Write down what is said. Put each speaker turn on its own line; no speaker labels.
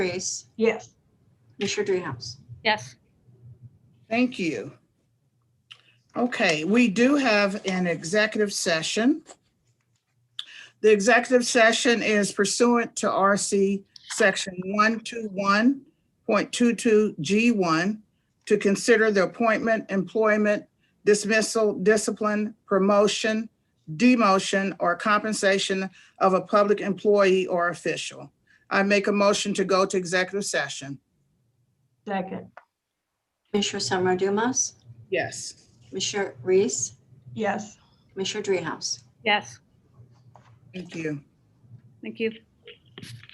Reese,
Yes.
Commissioner Dreehouse.
Yes,
Thank you. Okay, we do have an executive session. The executive session is pursuant to RC Section 121.22G1 to consider the appointment, employment, dismissal, discipline, promotion, demotion, or compensation of a public employee or official. I make a motion to go to executive session.
Second.
Commissioner Summer Dumas,
Yes.
Commissioner Reese,
Yes.
Commissioner Dreehouse.
yes,
Thank you.
thank you.